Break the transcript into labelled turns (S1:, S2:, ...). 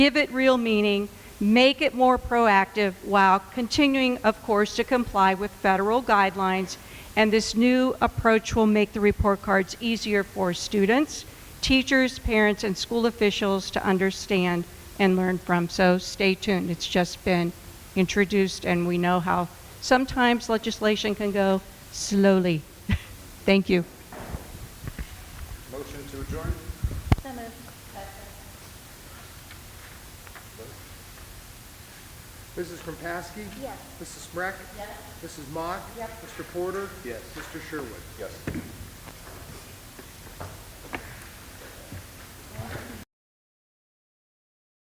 S1: give it real meaning, make it more proactive while continuing, of course, to comply with federal guidelines. And this new approach will make the report cards easier for students, teachers, parents, and school officials to understand and learn from. So stay tuned. It's just been introduced, and we know how sometimes legislation can go slowly. Thank you.
S2: Motion to adjourn?
S3: Mrs. Kropaski? Yes. Mrs. Smrek? Yes. Mrs. Mock? Yes. Mr. Porter?
S2: Yes.
S3: Mr. Sherwood?
S2: Yes.